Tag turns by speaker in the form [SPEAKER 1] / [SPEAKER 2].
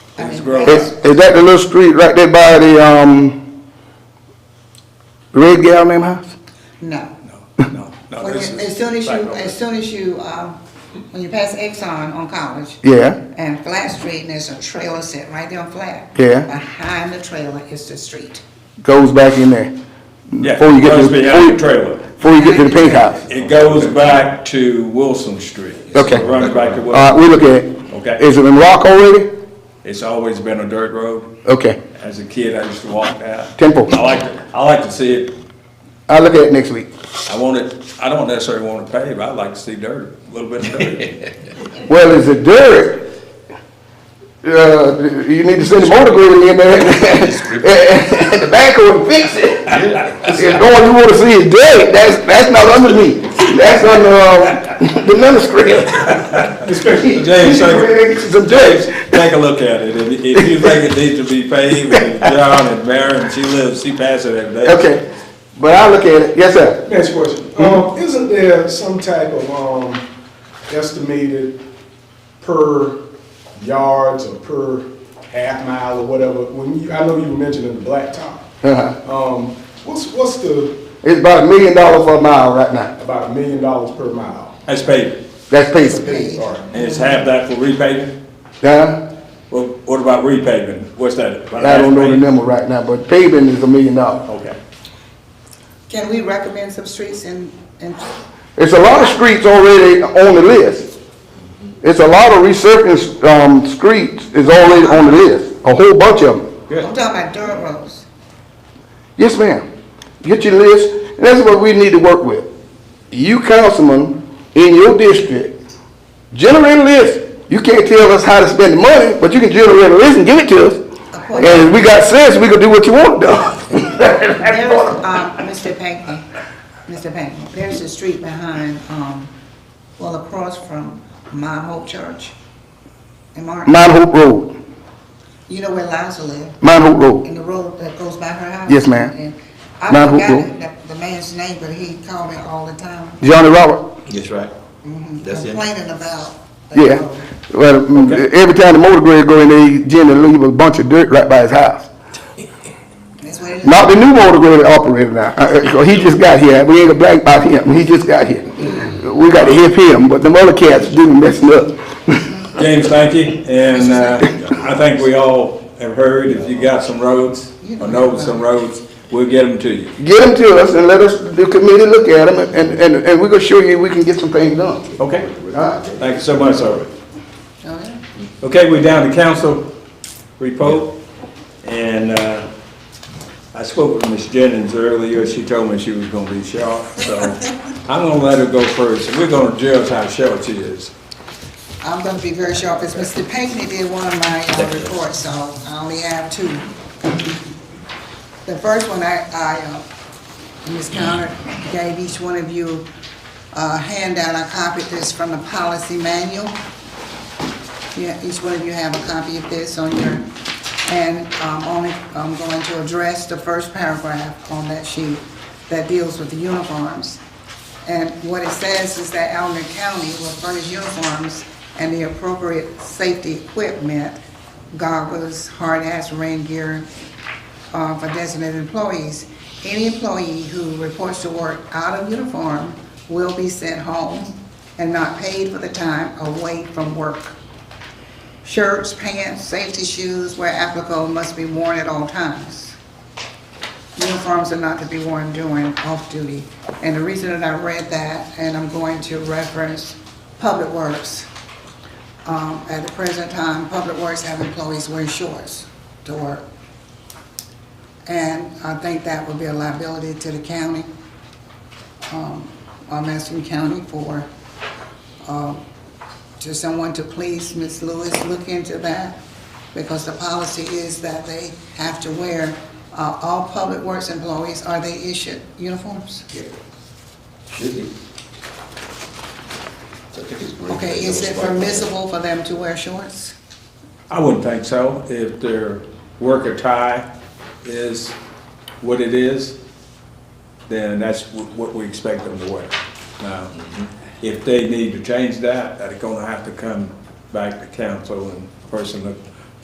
[SPEAKER 1] It's
[SPEAKER 2] Is,
[SPEAKER 1] growing.
[SPEAKER 2] is that the little street right there by the, um, Red Gal name house?
[SPEAKER 1] No.
[SPEAKER 3] No, no, no.
[SPEAKER 1] When
[SPEAKER 3] this
[SPEAKER 1] you-
[SPEAKER 3] is
[SPEAKER 1] As soon as
[SPEAKER 3] back
[SPEAKER 1] you,
[SPEAKER 3] over.
[SPEAKER 1] as soon as you, um, when you pass Exxon on College
[SPEAKER 2] Yeah,
[SPEAKER 1] and Flat Street, and there's a trailer set right there on Flat.
[SPEAKER 2] Yeah.
[SPEAKER 1] Behind the trailer is the street.
[SPEAKER 2] goes back in there.
[SPEAKER 3] Yeah,
[SPEAKER 2] Before you
[SPEAKER 3] it
[SPEAKER 2] get to
[SPEAKER 3] goes behind the
[SPEAKER 2] before you-
[SPEAKER 3] trailer.
[SPEAKER 2] Before you get to the pink house.
[SPEAKER 3] It goes back to Wilson Street. It
[SPEAKER 2] Okay. Uh,
[SPEAKER 3] Runs back to
[SPEAKER 2] All
[SPEAKER 3] Wilson.
[SPEAKER 2] right, we look at it.
[SPEAKER 3] Okay.
[SPEAKER 2] Is it in rock already?
[SPEAKER 3] It's always been a dirt road.
[SPEAKER 2] Okay,
[SPEAKER 3] As a kid, I used to walk that.
[SPEAKER 2] Temple.
[SPEAKER 3] I like, to- I like to see it,
[SPEAKER 2] I'll look at it next week.
[SPEAKER 3] I want it, I don't necessarily want to pave, I like to see dirt, a little bit of dirt.
[SPEAKER 2] Well, is it dirt? Uh, you need to send the motor grader in there and the backhoe and fix it. If all you wanna see is dirt, that's, that's not under me. That's under, uh, the manuscript.
[SPEAKER 3] James, so-
[SPEAKER 2] Some dirt.
[SPEAKER 3] Take a look at it, if, if you think it needs to be paved, and John and Maren, she lives, she passes it every day.
[SPEAKER 2] Okay, but I'll look at it. Yes, sir.
[SPEAKER 4] Next question. Um, isn't there some type of, um, estimated per yards or per half mile or whatever? When you, I know you were mentioning the blacktop.
[SPEAKER 2] Uh-huh.
[SPEAKER 4] Um, what's, what's the,
[SPEAKER 2] It's about a million dollars for a mile right now.
[SPEAKER 4] about a million dollars per mile?
[SPEAKER 3] That's paved,
[SPEAKER 2] That's pacing.
[SPEAKER 4] Hey, all right.
[SPEAKER 3] and it's half that for repaving,
[SPEAKER 2] Huh?
[SPEAKER 3] well, what about repaving, what's that? about
[SPEAKER 2] I don't know the
[SPEAKER 3] half paved?
[SPEAKER 2] number right now, but paving is a million dollars.
[SPEAKER 3] Okay.
[SPEAKER 1] Can we recommend some streets in, in,
[SPEAKER 2] It's a lot of streets already on the list. It's a lot of resurfacing, um, streets is already on the list, a whole bunch of them.
[SPEAKER 1] I'm talking about dirt roads.
[SPEAKER 2] Yes, ma'am. Get your list, and that's what we need to work with. You councilman in your district, generate a list. You can't tell us how to spend the money, but you can generate a list and give it to us. And if we got sense, we can do what you want done.
[SPEAKER 1] There's, um, Mr. Pankney, Mr. Pankney, there's a street behind, um, well, across from Mount Hope Church in Martin.
[SPEAKER 2] Mount Hope Road,
[SPEAKER 1] You know where Liza lives,
[SPEAKER 2] Mount Hope Road.
[SPEAKER 1] in the road that goes by her house?
[SPEAKER 2] Yes, ma'am.
[SPEAKER 1] And
[SPEAKER 2] Mount
[SPEAKER 1] I
[SPEAKER 2] Hope
[SPEAKER 1] forgot
[SPEAKER 2] Road.
[SPEAKER 1] the- the man's name, but he called me all the time,
[SPEAKER 2] Johnny Robert,
[SPEAKER 5] That's right. That's it.
[SPEAKER 1] complaining about. that
[SPEAKER 2] yeah.
[SPEAKER 1] road.
[SPEAKER 2] Well, mm, every time the motor grader go in there, Jimmy leave a bunch of dirt right by his house.
[SPEAKER 1] That's what it is.
[SPEAKER 2] Not the new motor grader operator now, Uh, uh, he just got here, we ain't gonna black about him, he just got here. We gotta help him, but the other cats do messing up.
[SPEAKER 3] James, thank you, and uh, I think we all have heard, if you got some roads, or know some roads, we'll get them to you.
[SPEAKER 2] Get them to us and let us, the committee look at them, and, and, and we're gonna show you we can get some things done.
[SPEAKER 3] Okay.
[SPEAKER 2] Alright.
[SPEAKER 3] Thank you so much, sir.
[SPEAKER 1] All right.
[SPEAKER 3] Okay, we're down to council report, and uh, I spoke with Ms. Jennings earlier, she told me she was gonna be short, so I'm gonna let her go first, and we're gonna judge how short she is.
[SPEAKER 1] I'm gonna be very sharp, because Mr. Pinckney did one of my uh, reports, so I only have two. The first one, I, I, uh, Ms. Connor gave each one of you a handout, I copied this from the policy manual. Yeah, each one of you have a copy of this on your, and I'm only, I'm going to address the first paragraph on that sheet that deals with the uniforms. And what it says is that Allen County will furnish uniforms and the appropriate safety equipment, goggles, hard hats, rain gear, uh, for designated employees. Any employee who reports to work out of uniform will be sent home and not paid for the time away from work. Shirts, pants, safety shoes, where applicable, must be worn at all times. Uniforms are not to be worn during off-duty. And the reason that I read that, and I'm going to reference Public Works. Um, At the present time, Public Works have employees wear shorts to work. And I think that would be a liability to the county, um, uh, Madison County for, um, to someone to please, Ms. Lewis, look into that, because the policy is that they have to wear, uh, all public works employees, are they issued uniforms?
[SPEAKER 5] Should be. So I think it's green.
[SPEAKER 1] Okay, is it permissible for them to wear shorts?
[SPEAKER 3] I wouldn't think so, if their worker tie is what it is, then that's wh- what we expect them to wear. Now, if they need to change that, they're gonna have to come back to council and person that